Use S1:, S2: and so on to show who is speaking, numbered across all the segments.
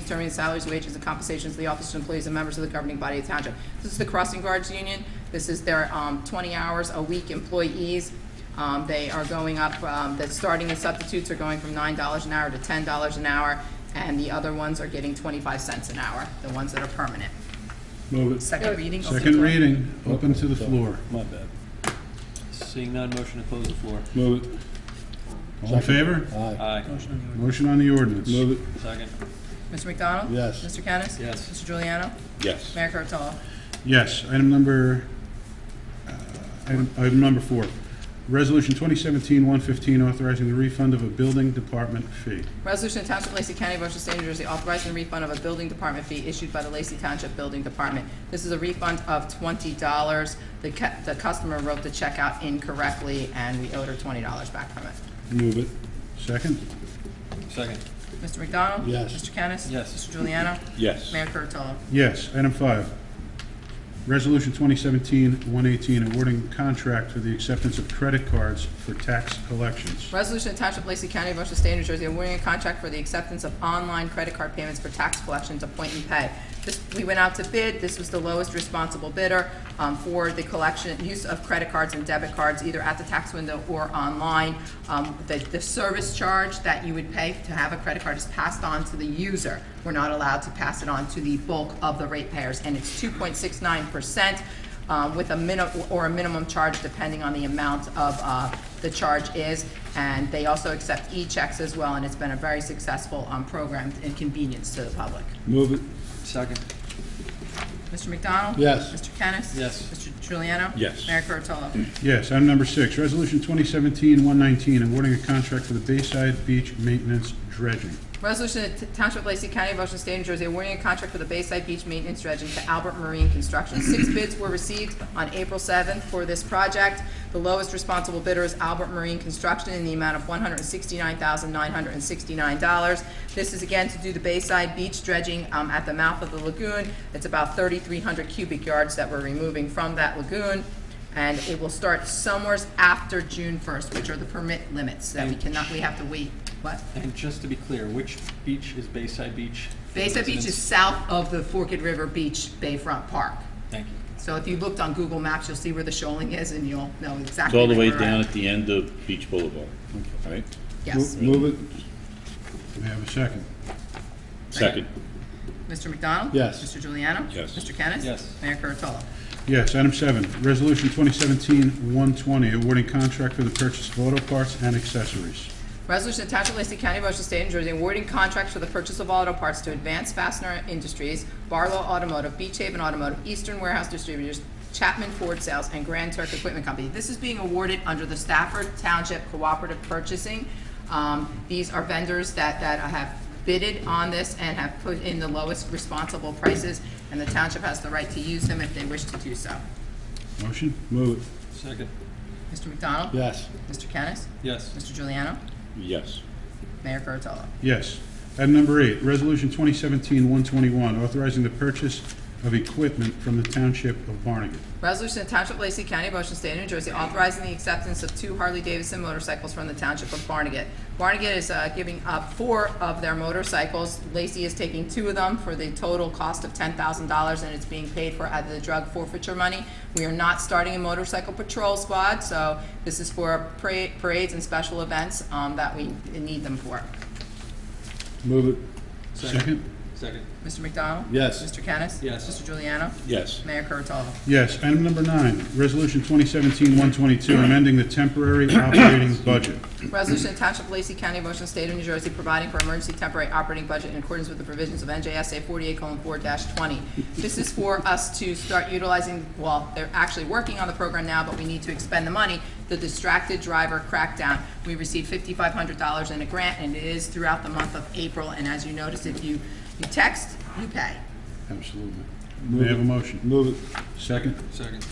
S1: determining salaries, wages, and compensations of the officers, employees, and members of the governing body of the township. This is the crossing guards union. This is their um, 20 hours a week employees. Um, They are going up, um, the starting and substitutes are going from $9 an hour to $10 an hour, and the other ones are getting 25 cents an hour, the ones that are permanent.
S2: Move it.
S1: Second reading. open
S2: Second
S1: floor.
S2: reading, open to the floor.
S3: My bad.
S4: Seeing none, motion to close the floor.
S2: Move it. All in favor?
S3: Aye.
S4: Aye.
S2: Motion on the ordinance. Move it.
S4: Second.
S1: Mr. McDonald?
S3: Yes.
S1: Mr. Kennis?
S4: Yes.
S1: Mr. Juliano?
S2: Yes.
S1: Mayor Kurtolo?
S2: Yes, item number, uh, item item number four. Resolution 2017-115, authorizing the refund of a building department fee.
S1: Resolution of Township of Lacey County, Ocean State, New Jersey, authorizing the refund of a building department fee issued by the Lacey Township Building Department. This is a refund of twenty dollars. The cu- the customer wrote the check out incorrectly, and we owed her twenty dollars back from it.
S2: Move it. Second?
S4: Second.
S1: Mr. McDonald?
S3: Yes.
S1: Mr. Kennis?
S4: Yes.
S1: Mr. Juliano?
S2: Yes.
S1: Mayor Kurtolo?
S2: Yes. Item five. Resolution 2017-118, awarding contract for the acceptance of credit cards for tax collections.
S1: Resolution of Township of Lacey County, Ocean State, New Jersey, awarding a contract for the acceptance of online credit card payments for tax collections of point and pay. This, we went out to bid, this was the lowest responsible bidder, um, for the collection, use of credit cards and debit cards, either at the tax window or online. Um, the, the service charge that you would pay to have a credit card is passed on to the user. We're not allowed to pass it on to the bulk of the ratepayers, and it's two point six nine percent um, with a minimum, or a minimum charge depending on the amount of uh, the charge is. And they also accept e-checks as well, and it's been a very successful um, program and convenience to the public.
S3: Move it.
S4: Second.
S1: Mr. McDonald?
S3: Yes.
S1: Mr. Kennis?
S4: Yes.
S1: Mr. Juliano?
S2: Yes.
S1: Mayor Kurtolo?
S2: Yes, item number six, resolution 2017-119, awarding a contract for the Bayside Beach Maintenance Dredging.
S1: Resolution of the Township of Lacey County, Ocean State, New Jersey, awarding a contract for the Bayside Beach Maintenance Dredging to Albert Marine Construction. Six bids were received on April 7th for this project. The lowest responsible bidder is Albert Marine Construction in the amount of $169,969. This is again to do the Bayside Beach dredging um, at the mouth of the lagoon. It's about 3,300 cubic yards that we're removing from that lagoon, and it will start somewheres after June 1st, which are the permit limits, that we cannot, we have to wait, what?
S4: And just to be clear, which beach is Bayside Beach?
S1: Bayside Beach is south of the Forked River Beach Bayfront Park.
S4: Thank you.
S1: So if you looked on Google Maps, you'll see where the shoaling is and you'll know
S5: It's
S1: exactly.
S5: all the way
S1: where we're at.
S5: down at the end of Beach Boulevard, right?
S1: Yes.
S3: Move it.
S2: May I have a second?
S5: Second,
S1: Mr. McDonald?
S3: Yes.
S1: Mr. Juliano?
S5: Yes.
S1: Mr. Kennis?
S4: Yes.
S1: Mayor Kurtolo?
S2: Yes, item seven, resolution 2017-120, awarding contract for the purchase of auto parts and accessories.
S1: Resolution to Township of Lacey County, Ocean State, New Jersey, awarding contracts for the purchase of auto parts to Advanced Fastener Industries, Barlow Automotive, Beach Haven Automotive, Eastern Warehouse Distributors, Chapman Ford Sales, and Grand Turk Equipment Company. This is being awarded under the Stafford Township Cooperative Purchasing. Um, These are vendors that, that have bidded on this and have put in the lowest responsible prices, and the township has the right to use them if they wish to do so.
S2: Motion? Move it.
S4: Second.
S1: Mr. McDonald?
S3: Yes.
S1: Mr. Kennis?
S4: Yes.
S1: Mr. Juliano?
S5: yes,
S1: Mayor Kurtolo?
S2: Yes. Item number eight, resolution 2017-121, authorizing the purchase of equipment from the township of Barnegat.
S1: Resolution of Township of Lacey County, Ocean State, New Jersey, authorizing the acceptance of two Harley-Davidson motorcycles from the Township of Barnegat. Barnegat is uh, giving up four of their motorcycles. Lacey is taking two of them for the total cost of $10,000, and it's being paid for out of the drug forfeiture money. We are not starting a motorcycle patrol squad, so this is for para- parades and special events um, that we need them for.
S3: Move it.
S2: Second?
S4: Second.
S1: Mr. McDonald?
S3: Yes.
S1: Mr. Kennis?
S4: Yes.
S1: Mr. Juliano?
S5: yes,
S1: Mayor Kurtolo?
S2: Yes. Item number nine, resolution 2017-122, amending the temporary operating budget.
S1: Resolution to Township of Lacey County, Motion State of New Jersey, providing for emergency temporary operating budget in accordance with the provisions of NJSA 48:4-20. This is for us to start utilizing, well, they're actually working on the program now, but we need to expend the money, the distracted driver crackdown. We received $5,500 in a grant, and it is throughout the month of April, and as you notice, if you you text, you pay.
S2: Absolutely. May I have a motion?
S3: Move it.
S2: Second?
S4: Second.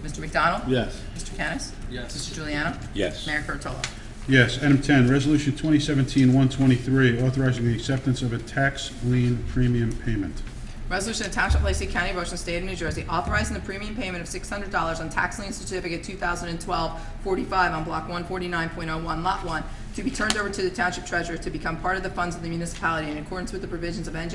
S1: Mr. McDonald?
S3: Yes.
S1: Mr. Kennis?
S4: Yes.
S1: Mr. Juliano?
S5: yes,
S1: Mayor Kurtolo?
S2: Yes. Item 10, Resolution 2017-123, authorizing the acceptance of a tax lien premium payment.
S1: Resolution of Township of Lacey County, Ocean State of New Jersey, authorizing the premium payment of six hundred dollars on tax lien certificate 2012-45 on block one forty-nine point oh one, lot one, to be turned over to the township treasurer to become part of the funds of the municipality in accordance with the provisions of NJ